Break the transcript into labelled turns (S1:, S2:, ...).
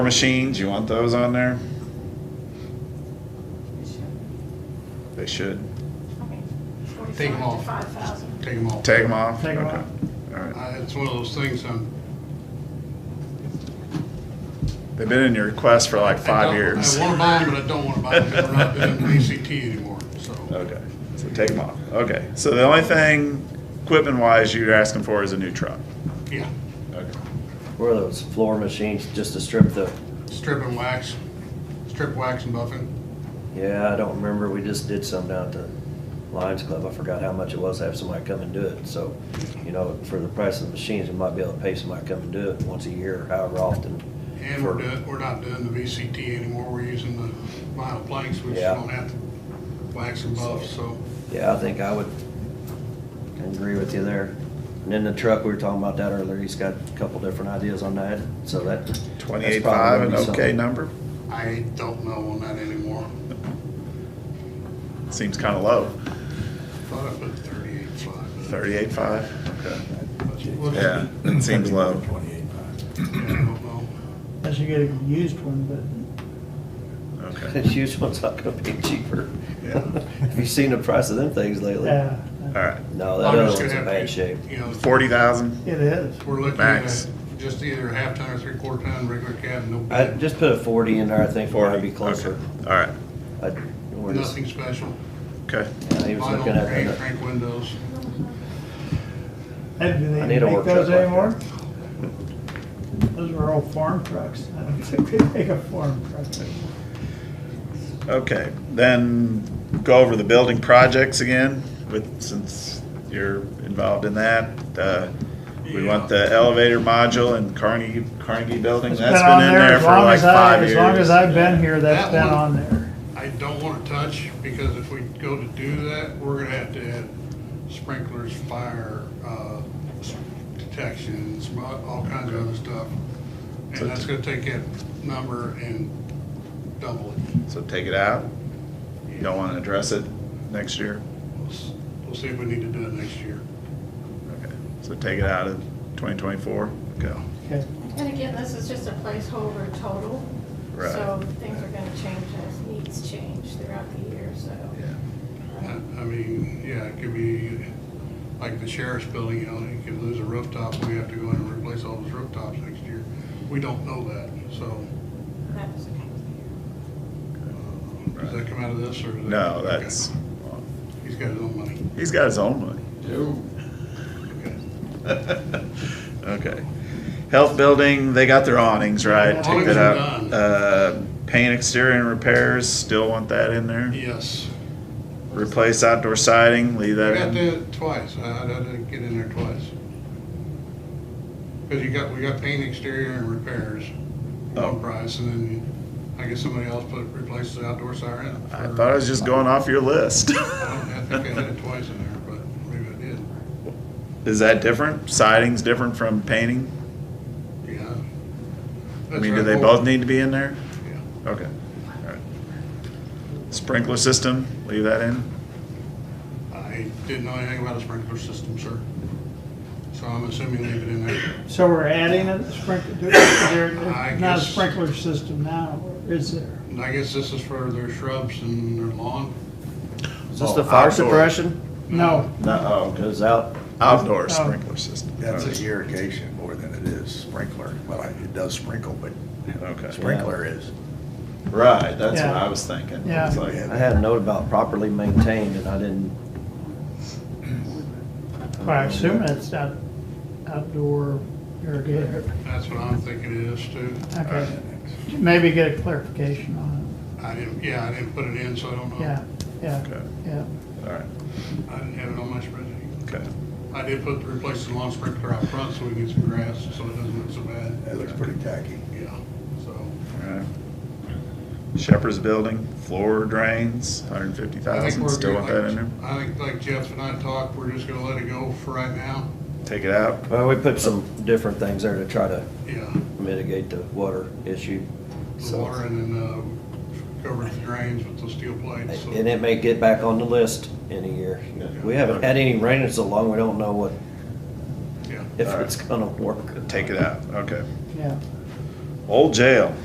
S1: machines, you want those on there? They should.
S2: Take 'em off.
S3: Forty-five to five thousand.
S2: Take them off.
S1: Take them off?
S4: Take 'em
S1: Okay.
S4: off.
S1: All right.
S2: I- It's one of those things, I'm.
S1: They've been in your request for like
S2: I
S1: five
S2: don't-
S1: years.
S2: I want to buy them, but I don't want to buy them. We're not doing VCT anymore, so.
S1: Okay, so take them off. Okay, so the only thing, equipment-wise, you're asking for is a new truck.
S2: Yeah,
S1: Okay.
S5: Where are those floor machines, just to strip the,
S2: strip and wax, strip wax and buffing.
S5: yeah, I don't remember, we just did some down at the Lions Club, I forgot how much it was, to have somebody come and do it, so, you know, for the price of the machines, we might be able to pay somebody to come and do it once a year, or however often.
S2: And
S5: for-
S2: we're doing, we're not doing the VCT anymore. We're using the vinyl planks, which
S5: Yeah.
S2: don't have to wax and buff, so.
S5: Yeah, I think I would agree with you there. And then the truck, we were talking about that earlier, he's got a couple different ideas on that, so that. that's probably
S1: Twenty-eight-five, an
S5: gonna
S1: okay
S5: be something.
S1: number?
S2: I don't know on that anymore.
S1: Seems kinda low.
S2: Thought I put thirty-eight five.
S1: Thirty-eight-five? Okay. Yeah,
S2: Yeah,
S1: it seems low.
S2: I don't know.
S4: Unless you get a used one, but
S1: Okay,
S5: This used one's not gonna be cheaper.
S1: Yeah.
S5: Have you seen the price of them things lately?
S4: yeah,
S1: all right.
S5: No, that
S2: I'm
S5: other
S2: just
S5: one's
S2: gonna
S5: in
S2: have to,
S5: bad shape.
S2: You know,
S1: Forty thousand?
S4: it is.
S2: We're looking at
S1: Max.
S2: just either a half ton or three quarter ton regular cab, no
S5: I
S2: bed,
S5: Uh, just put a forty in there, I think, for I'd be closer.
S1: All right,
S5: I- we're just-
S2: nothing special.
S1: okay.
S5: yeah, He was
S2: Vinyl,
S5: looking at,
S2: paint,
S5: the-
S2: crank windows.
S4: Hey, do
S5: I
S4: they
S5: need a
S4: make
S5: work truck
S4: those
S5: like that.
S4: anymore? Those were all farm trucks. I don't think they make a farm truck. anymore.
S1: Okay, then go over the building projects again with, since you're involved in that. Uh, We want the elevator module in Carnegie, Carnegie Building.
S4: It's
S1: That's
S4: on
S1: been in there
S4: as
S1: for
S4: long
S1: like
S4: as I-
S1: five years.
S4: As long as I've been here, that's
S2: That
S4: been
S2: one-
S4: on there.
S2: I don't wanna touch, because if we go to do that, we're gonna have to add sprinklers, fire, uh, s- detections, all all kinds of other stuff.
S1: So
S2: And that's gonna take that number and double it.
S1: So take it out. You don't want to address it next year?
S2: We'll s- We'll see if we need to do it next year.
S1: Okay, so take it out of 2024? Go.
S4: Okay.
S3: And again, this is just a placeholder total.
S1: Right.
S3: So things are gonna change as needs change throughout the year, so. um,
S2: I I mean, yeah, it could be like the sheriff's building, you know, you could lose a rooftop, we have to go in and replace all those rooftops next year. We don't know that, so,
S3: That was okay.
S2: uh, does that come out of this or? does that-
S1: No,
S2: okay.
S1: that's,
S2: He's got his own money.
S1: he's got his own money.
S2: Okay.
S1: Okay. Health building, they got their awnings, right? Take that out.
S2: Awnings are done.
S1: Uh, Paint exterior and repairs, still want that in there?
S2: Yes.
S1: Replace outdoor siding, leave
S2: I
S1: that
S2: got
S1: in?
S2: that twice, I I didn't get in there twice. Cause you got, we got paint exterior and repairs,
S1: Oh.
S2: one price, and then you- I guess somebody else put, replaced the outdoor siren.
S1: I
S2: for-
S1: thought I was just going off your list.
S2: I don't, I think I had it twice in there, but maybe I did.
S1: Is that different? Siding's different from painting?
S2: Yeah.
S1: I
S2: That's
S1: mean, do
S2: right.
S1: they both need to be in there?
S2: Yeah.
S1: Okay, all right. Sprinkler system, leave that in?
S2: I didn't know anything about a sprinkler system, sir. So I'm assuming leave it in there.
S4: So we're adding a sprinkler, there-
S2: I
S4: there's not a
S2: guess-
S4: sprinkler system now, is there?
S2: And I guess this is for their shrubs and their lawn.
S5: is this
S1: Oh,
S5: the fire
S1: outdoor.
S5: suppression?
S4: No,
S1: No, oh,
S5: Goes out,
S1: Outdoor
S4: Oh.
S1: sprinkler system.
S6: That's an irrigation more than it is sprinkler. Well, I- it does sprinkle, but
S1: Okay,
S6: sprinkler is.
S1: right, that's what
S4: Yeah.
S1: I was thinking.
S4: Yeah.
S1: It's like-
S5: I had a note about properly maintained, and I didn't.
S4: Well, I assume it's out, outdoor irrigator.
S2: That's what I'm thinking it is too.
S4: Okay. Maybe get a clarification on
S2: I didn't, yeah, I didn't put it in, so I don't
S4: it.
S2: know.
S4: Yeah, yeah,
S1: Okay,
S4: yeah.
S1: all right,
S2: I didn't have it on my spreadsheet.
S1: okay.
S2: I did put, replace the lawn sprinkler out front so we can get some grass, so it doesn't look so bad.
S6: It looks pretty tacky.
S2: Yeah, so.
S1: All right. Shepherd's Building, floor drains, hundred and fifty
S2: I think
S1: thousand,
S2: we're
S1: still
S2: good,
S1: want that
S2: like-
S1: in there?
S2: I think like Jeff and I talked, we're just gonna let it go for right now.
S1: Take it out?
S5: Well, we put some different things there to try to
S2: Yeah.
S5: mitigate the water issue.
S2: the
S5: So,
S2: water and then uh, cover the drains with those steel plates. so-
S5: and it may get back on the list in a year. We haven't had any rain in so long, we don't know what,
S2: Yeah.
S5: if it's gonna work.
S1: Take it out, okay.
S4: Yeah.
S1: Old Jail,